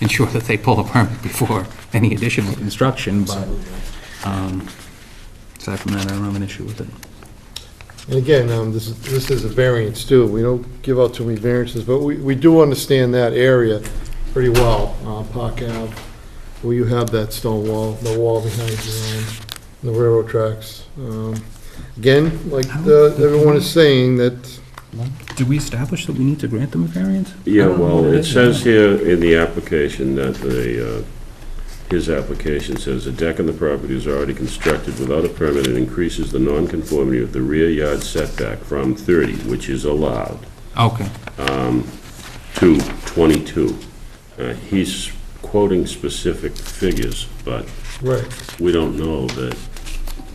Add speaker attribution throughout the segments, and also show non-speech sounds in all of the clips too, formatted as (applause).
Speaker 1: ensure that they pull a permit before any additional construction, but um, aside from that, I don't have an issue with it.
Speaker 2: And again, um, this is, this is a variance too. We don't give out too many variances, but we, we do understand that area pretty well, uh, Park Ave, where you have that stone wall, the wall behind you, um, the railroad tracks. Um, Again, like the, everyone is saying that,
Speaker 1: Did we establish that we need to grant them a variance?
Speaker 3: Yeah, well, it says here in the application that the, uh, his application says, "A deck on the property is already constructed without a permit and increases the nonconformity of the rear yard setback from 30, which is allowed,
Speaker 1: Okay,
Speaker 3: to 22." Uh, He's quoting specific figures, but
Speaker 2: right,
Speaker 3: we don't know that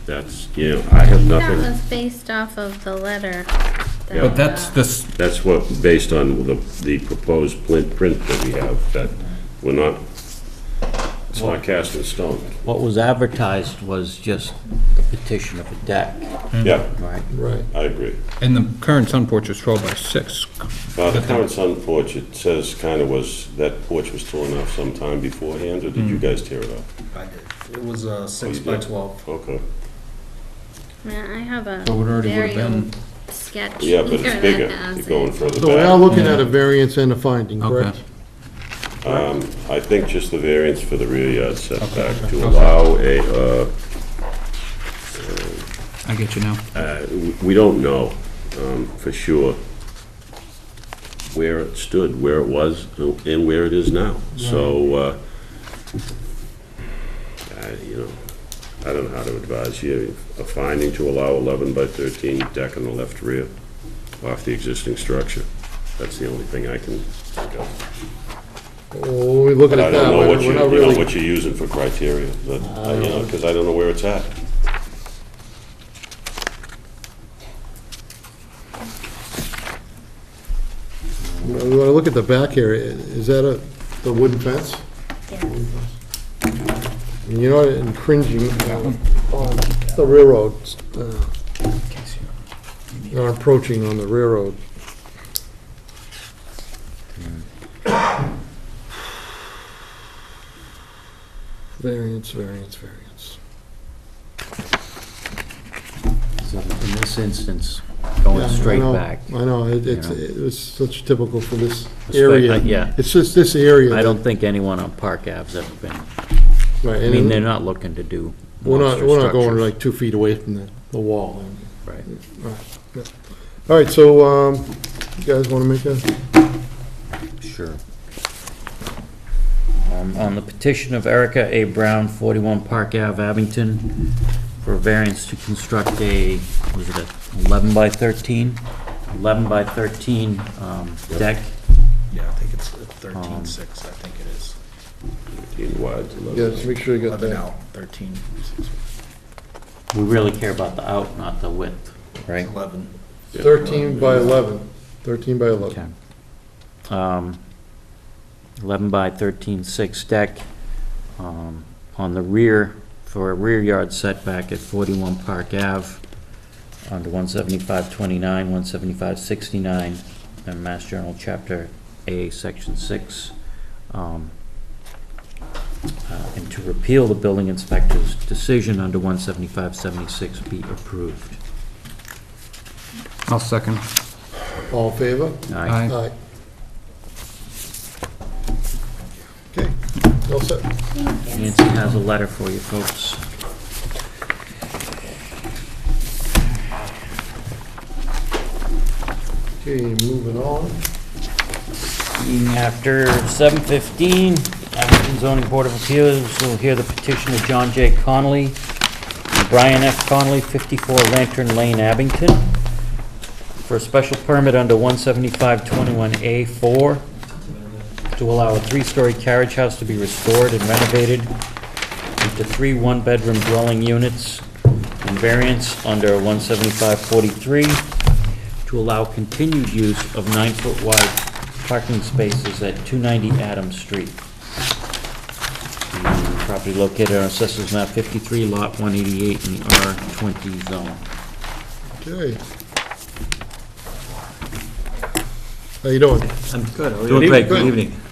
Speaker 3: that's, you know, I have
Speaker 4: That
Speaker 3: nothing.
Speaker 4: was based off of the letter. that,
Speaker 3: Yeah.
Speaker 1: but that's
Speaker 4: uh,
Speaker 1: this,
Speaker 3: That's what, based on the, the proposed plin- print that we have, that we're not, it's not cast in stone.
Speaker 5: What was advertised was just the petition of a deck,
Speaker 3: Yeah,
Speaker 5: right?
Speaker 2: right.
Speaker 3: I agree.
Speaker 1: and the current sun porch is 12 by 6.
Speaker 3: Now, the current sun porch, it says kind of was, that porch was torn off sometime beforehand, or did you guys tear it off?
Speaker 6: I did. It was uh, six
Speaker 3: you
Speaker 6: by
Speaker 3: did?
Speaker 6: twelve.
Speaker 3: Okay.
Speaker 4: Man, I have a
Speaker 1: So it already would've
Speaker 4: very
Speaker 1: been-
Speaker 4: old sketch.
Speaker 3: Yeah, but
Speaker 4: here
Speaker 3: it's bigger.
Speaker 4: (laughs) that has
Speaker 3: You're going
Speaker 4: it.
Speaker 3: further
Speaker 2: So we're now
Speaker 3: back.
Speaker 2: looking at a variance and a finding, correct?
Speaker 1: Okay.
Speaker 3: Um, I think just the variance for the rear yard setback to allow a, uh,
Speaker 1: I get you now.
Speaker 3: uh, we- we don't know um, for sure where it stood, where it was, and where it is now. So, uh, I- you know, I don't know how to advise you. A finding to allow 11 by 13 deck on the left rear off the existing structure. That's the only thing I can think of.
Speaker 2: Well, When we look at
Speaker 3: But I
Speaker 2: it that
Speaker 3: don't know
Speaker 2: way,
Speaker 3: what you,
Speaker 2: we're
Speaker 3: you
Speaker 2: not
Speaker 3: know,
Speaker 2: really, Um.
Speaker 3: what you're using for criteria, but, uh, you know, because I don't know where it's at.
Speaker 2: we want to look at the back area. Is that a, the wooden fence? And You're not infringing on the railroad, uh, not approaching on the railroad. Variance, variance, variance.
Speaker 5: So in this instance, going
Speaker 2: Yeah, I
Speaker 5: straight
Speaker 2: know,
Speaker 5: back.
Speaker 2: I know, it- it's,
Speaker 5: you know.
Speaker 2: it was such typical for this
Speaker 5: Respect-
Speaker 2: area.
Speaker 5: yeah.
Speaker 2: It's just this area.
Speaker 5: I
Speaker 2: that-
Speaker 5: don't think anyone on Park Ave's ever been,
Speaker 2: Right,
Speaker 5: I
Speaker 2: and
Speaker 5: mean, they're not looking to do
Speaker 2: We're not,
Speaker 5: monster
Speaker 2: we're not going
Speaker 5: structures.
Speaker 2: like two feet away from the, the wall.
Speaker 5: Right.
Speaker 2: All right, so, um, you guys want to make a?
Speaker 5: Sure. Um, On the petition of Erica A. Brown, 41 Park Ave, Abington, for variance to construct a, was it a 11 by 13? 11 by 13 um, deck.
Speaker 6: Yeah, I think it's uh,
Speaker 5: Um,
Speaker 6: thirteen six, I think it is.
Speaker 3: In wide,
Speaker 2: Yeah, just make sure you got
Speaker 6: Eleven
Speaker 2: that.
Speaker 6: out, thirteen,
Speaker 5: We really care about the out, not the width, right?
Speaker 6: eleven.
Speaker 2: Thirteen by eleven. Thirteen by
Speaker 5: Okay.
Speaker 2: eleven.
Speaker 5: Um, 11 by 13, six deck, um, on the rear, for a rear yard setback at 41 Park Ave, under 17529, 17569, and Mass General Chapter A, Section 6. um, uh, And to repeal the building inspector's decision under 17576 be approved.
Speaker 1: I'll second.
Speaker 2: All in favor?
Speaker 1: Aye.
Speaker 2: Aye. Okay, all set.
Speaker 5: Nancy has a letter for you folks.
Speaker 2: Okay, moving on.
Speaker 5: Being After 7:15, Abington Zoning Board of Appeals will hear the petition of John J. Connolly and Brian F. Connolly, 54 Lantern Lane, Abington, for a special permit under 17521A4 to allow a three-story carriage house to be restored and renovated into three one-bedroom dwelling units and variance under 17543 to allow continued use of nine-foot wide parking spaces at 290 Adams Street. Property located on Assessors Map 53, Lot 188, in the R20 zone.
Speaker 2: Okay. How you doing?
Speaker 7: Doing great, good evening.